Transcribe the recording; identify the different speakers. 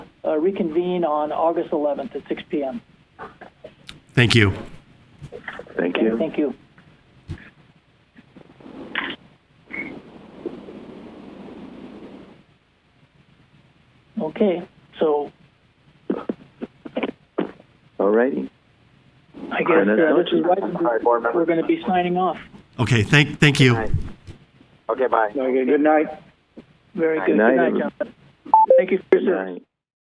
Speaker 1: uh, reconvene on August 11th at 6 PM.
Speaker 2: Thank you.
Speaker 3: Thank
Speaker 1: Okay,
Speaker 3: you.
Speaker 1: Thank you. Okay, so
Speaker 3: All righty.
Speaker 1: I guess uh, this is right,
Speaker 3: board
Speaker 1: we're going to be signing off.
Speaker 2: Okay, thank, thank you.
Speaker 4: Okay, bye.
Speaker 1: Very good. Good night. Very good.
Speaker 3: Good night,
Speaker 1: Good night,
Speaker 3: everyone.
Speaker 1: Jonathan. Thank you for your
Speaker 3: Good
Speaker 1: service.
Speaker 3: night.